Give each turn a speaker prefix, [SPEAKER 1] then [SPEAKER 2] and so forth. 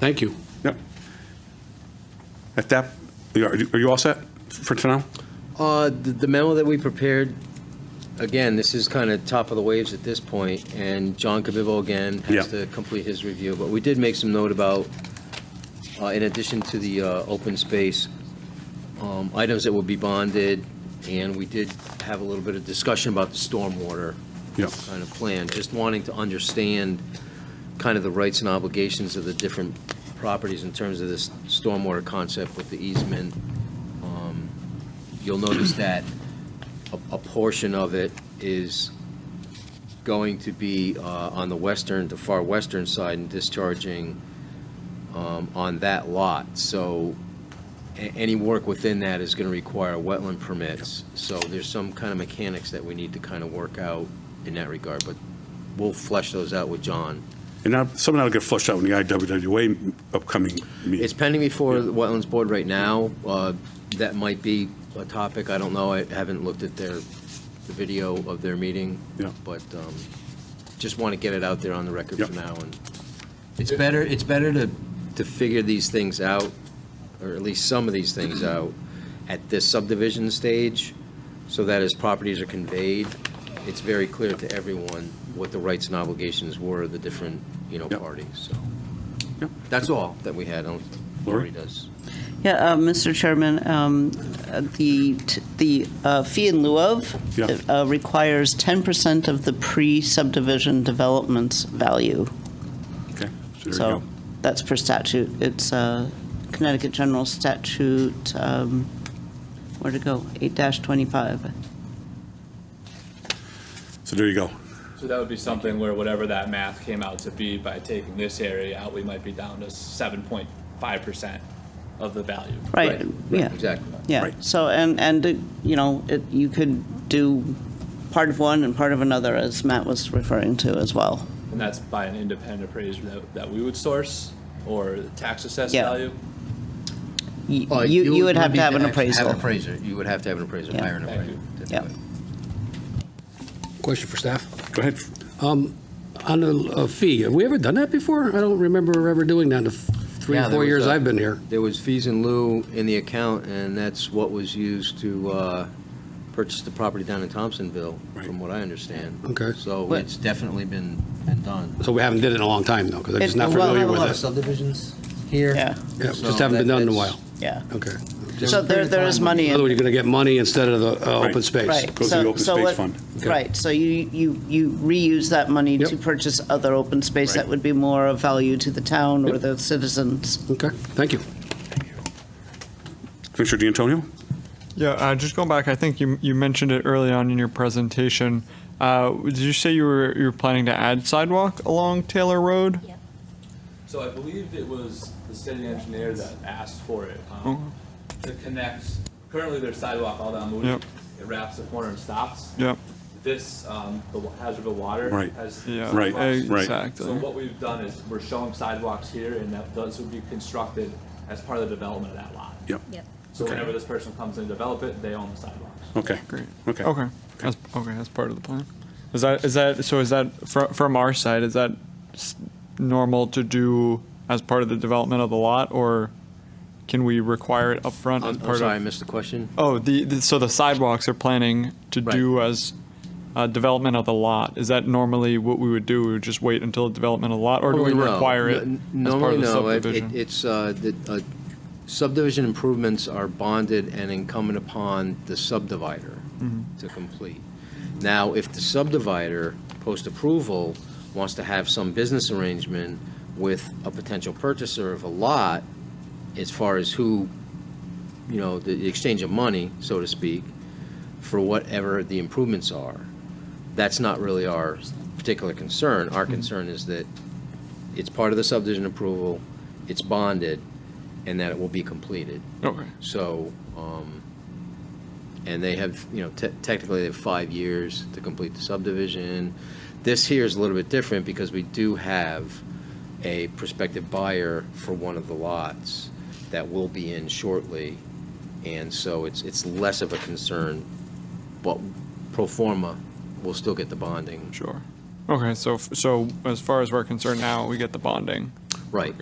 [SPEAKER 1] Thank you.
[SPEAKER 2] Yep. At that, are you are you all set for tonight?
[SPEAKER 3] Uh, The the memo that we prepared, again, this is kind of top of the waves at this point, and John Cabivo again has
[SPEAKER 2] Yeah.
[SPEAKER 3] to complete his review, but we did make some note about, uh, in addition to the uh, open space, um, items that would be bonded, and we did have a little bit of discussion about the stormwater
[SPEAKER 2] Yep.
[SPEAKER 3] kind of plan, just wanting to understand kind of the rights and obligations of the different properties in terms of this stormwater concept with the easement. Um, You'll notice that a, a portion of it is going to be uh, on the western, the far western side and discharging um, on that lot. So a- any work within that is going to require wetland permits. So there's some kind of mechanics that we need to kind of work out in that regard, but we'll flesh those out with John.
[SPEAKER 2] And now, some of that'll get flushed out in the IWWA upcoming
[SPEAKER 3] It's
[SPEAKER 2] meeting.
[SPEAKER 3] pending before the Wetlands Board right now. Uh, That might be a topic, I don't know, I haven't looked at their, the video of their meeting.
[SPEAKER 2] Yeah.
[SPEAKER 3] But um, just want to get it out there on the record for
[SPEAKER 2] Yeah.
[SPEAKER 3] now. And It's better, it's better to, to figure these things out, or at least some of these things out, at this subdivision stage, so that as properties are conveyed, it's very clear to everyone what the rights and obligations were of the different, you know,
[SPEAKER 2] Yeah.
[SPEAKER 3] parties, so.
[SPEAKER 2] Yeah.
[SPEAKER 3] That's all that we had, on
[SPEAKER 2] Lori?
[SPEAKER 3] Lori does.
[SPEAKER 4] Yeah, uh, Mr. Chairman, um, uh, the, t- the uh, fee in lieu of
[SPEAKER 2] Yeah.
[SPEAKER 4] uh, requires 10% of the pre-subdivision development's value.
[SPEAKER 2] Okay, so there you
[SPEAKER 4] So
[SPEAKER 2] go.
[SPEAKER 4] that's per statute. It's uh, Connecticut General Statute, um, where'd it go? 8-25.
[SPEAKER 2] So there you go.
[SPEAKER 5] So that would be something where whatever that math came out to be, by taking this area out, we might be down to seven point five percent of the value.
[SPEAKER 4] Right, yeah.
[SPEAKER 3] Exactly.
[SPEAKER 4] Yeah,
[SPEAKER 2] Right.
[SPEAKER 4] so, and, and, uh, you know, it- you could do part of one and part of another, as Matt was referring to as well.
[SPEAKER 5] And that's by an independent appraiser that, that we would source or tax assessed
[SPEAKER 4] Yeah.
[SPEAKER 5] value.
[SPEAKER 4] Y- You, you would have to have an appraisal.
[SPEAKER 3] appraiser, you would have to have an appraiser,
[SPEAKER 4] Yeah.
[SPEAKER 3] hire an
[SPEAKER 5] Thank
[SPEAKER 3] appraiser.
[SPEAKER 5] you.
[SPEAKER 4] Yeah.
[SPEAKER 1] Question for staff. Um,
[SPEAKER 2] Go ahead.
[SPEAKER 1] On the uh, fee, have we ever done that before? I don't remember ever doing that in the f- three, or
[SPEAKER 3] Yeah, there
[SPEAKER 1] four
[SPEAKER 3] was
[SPEAKER 1] years
[SPEAKER 3] a-
[SPEAKER 1] I've been here.
[SPEAKER 3] There was fees in lieu in the account, and that's what was used to uh, purchase the property down in Thompsonville,
[SPEAKER 2] Right.
[SPEAKER 3] from what I understand.
[SPEAKER 1] Okay.
[SPEAKER 3] So
[SPEAKER 4] What-
[SPEAKER 3] it's definitely been, been done.
[SPEAKER 1] So we haven't did it in a long time, though, because I'm just
[SPEAKER 4] It-
[SPEAKER 1] not
[SPEAKER 4] well,
[SPEAKER 1] familiar
[SPEAKER 4] have a lot
[SPEAKER 1] with
[SPEAKER 4] of
[SPEAKER 1] it.
[SPEAKER 3] subdivisions here.
[SPEAKER 4] Yeah,
[SPEAKER 1] Yeah,
[SPEAKER 3] so
[SPEAKER 1] Just haven't been
[SPEAKER 3] that-
[SPEAKER 1] done in a
[SPEAKER 3] that's-
[SPEAKER 1] while.
[SPEAKER 4] yeah.
[SPEAKER 1] Okay.
[SPEAKER 4] So there, there is money
[SPEAKER 1] In other
[SPEAKER 4] in.
[SPEAKER 1] words, you're going to get money instead of the uh,
[SPEAKER 2] Right.
[SPEAKER 1] open space.
[SPEAKER 4] Right.
[SPEAKER 2] Goes to
[SPEAKER 4] so-
[SPEAKER 2] the open
[SPEAKER 4] so
[SPEAKER 2] space
[SPEAKER 4] what-
[SPEAKER 2] fund.
[SPEAKER 1] Okay.
[SPEAKER 4] Right, so you, you, you reuse that money
[SPEAKER 1] Yep.
[SPEAKER 4] to purchase other open space that
[SPEAKER 2] Right.
[SPEAKER 4] would be more of value to the town or the citizens.
[SPEAKER 1] Okay, thank you.
[SPEAKER 2] Commissioner D'Antonio?
[SPEAKER 6] Yeah, uh, just going back, I think you you mentioned it early on in your presentation. Uh, did you say you were you were planning to add sidewalk along Taylor Road?
[SPEAKER 5] So I believe it was the city engineer that asked for it, um, to connect, currently there's sidewalk all down Moody.
[SPEAKER 6] Yep.
[SPEAKER 5] It wraps the corner and stops.
[SPEAKER 6] Yep.
[SPEAKER 5] This, um, the Hazardville Water
[SPEAKER 2] Right.
[SPEAKER 5] has.
[SPEAKER 6] Yeah. Uh,
[SPEAKER 2] Right, right.
[SPEAKER 6] Exactly.
[SPEAKER 5] So what we've done is we're showing sidewalks here and that those would be constructed as part of the development of that lot.
[SPEAKER 2] Yep.
[SPEAKER 7] Yep.
[SPEAKER 5] So
[SPEAKER 2] Okay.
[SPEAKER 5] whenever this person comes and develop it, they own the sidewalks.
[SPEAKER 2] Okay.
[SPEAKER 6] Great.
[SPEAKER 2] Okay.
[SPEAKER 6] Okay. That's, okay. That's part of the plan. Is that is that so? Is that from from our side? Is that s- normal to do as part of the development of the lot, or can we require it upfront
[SPEAKER 3] I'm
[SPEAKER 6] as part
[SPEAKER 3] I'm sorry, I
[SPEAKER 6] of?
[SPEAKER 3] missed the question.
[SPEAKER 6] Oh, the, the so the sidewalks are planning to
[SPEAKER 3] Right.
[SPEAKER 6] do as uh, development of the lot. Is that normally what we would do? We would just wait until development of the lot, or do we
[SPEAKER 3] Normally, Oh, no.
[SPEAKER 6] require it
[SPEAKER 3] N-
[SPEAKER 6] as part of
[SPEAKER 3] normally, no.
[SPEAKER 6] the
[SPEAKER 3] It- it-
[SPEAKER 6] subdivision?
[SPEAKER 3] It's, uh, the uh, subdivision improvements are bonded and incumbent upon the subdivider
[SPEAKER 6] Mm-hmm.
[SPEAKER 3] to complete. Now, if the subdivider, post-approval, wants to have some business arrangement with a potential purchaser of a lot, as far as who, you know, the the exchange of money, so to speak, for whatever the improvements are, that's not really our particular concern.
[SPEAKER 6] Mm-hmm.
[SPEAKER 3] Our concern is that it's part of the subdivision approval, it's bonded, and that it will be completed.
[SPEAKER 6] okay.
[SPEAKER 3] So, um, and they have, you know, te- technically they have five years to complete the subdivision. This here is a little bit different because we do have a prospective buyer for one of the lots that will be in shortly. And so it's, it's less of a concern, but pro forma will still get the bonding.
[SPEAKER 6] Sure. Okay. So f- so as far as we're concerned now, we get the bonding.
[SPEAKER 3] Right.